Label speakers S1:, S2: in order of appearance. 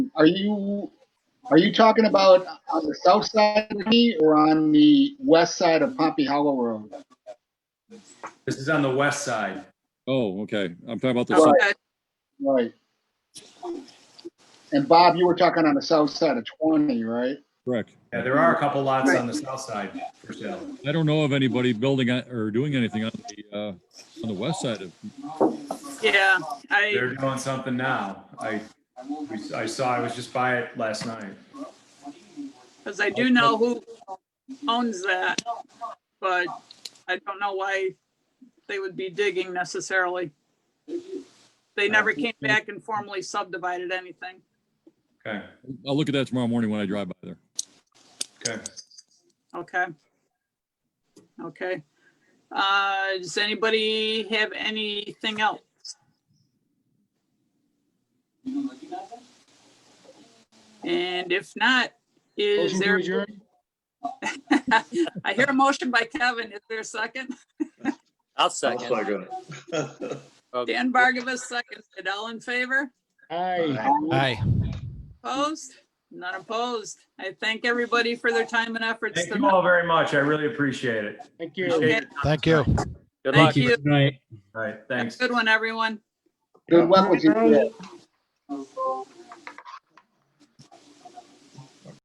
S1: Are you, are you talking about on the south side of me or on the west side of Pompey Hollow Road?
S2: This is on the west side.
S3: Oh, okay. I'm talking about the,
S1: Right.
S3: south-
S4: Okay,
S1: Right. And Bob, you were talking on the south side of 20, right?
S3: correct.
S2: Yeah, there are a couple lots on the south side for sale.
S3: I don't know of anybody building on- or doing anything on the, uh, on the west side of,
S4: yeah, I,
S2: They're doing something now. I, we- I saw, I was just by it last night.
S4: because I do know who owns that, but I don't know why they would be digging necessarily. They never came back and formally subdivided anything.
S2: Okay,
S3: I'll look at that tomorrow morning when I drive by there.
S2: okay.
S4: Okay. Okay. Uh, does anybody have anything else? And if not, is
S1: Motion to
S4: there,
S1: adjourn?
S4: I hear a motion by Kevin. Is there a second?
S5: I'll second. Okay.
S4: Dan Bargavas seconds. It all in favor?
S1: Aye.
S6: Aye.
S4: Opposed? Not opposed. I thank everybody for their time and efforts.
S2: Thank you all very much. I really appreciate it.
S1: Thank
S2: Appreciate it.
S6: Thank you.
S5: Good luck.
S4: Thank you.
S2: All right,
S4: Have a
S2: thanks.
S4: Good one, everyone.
S1: Good luck with your.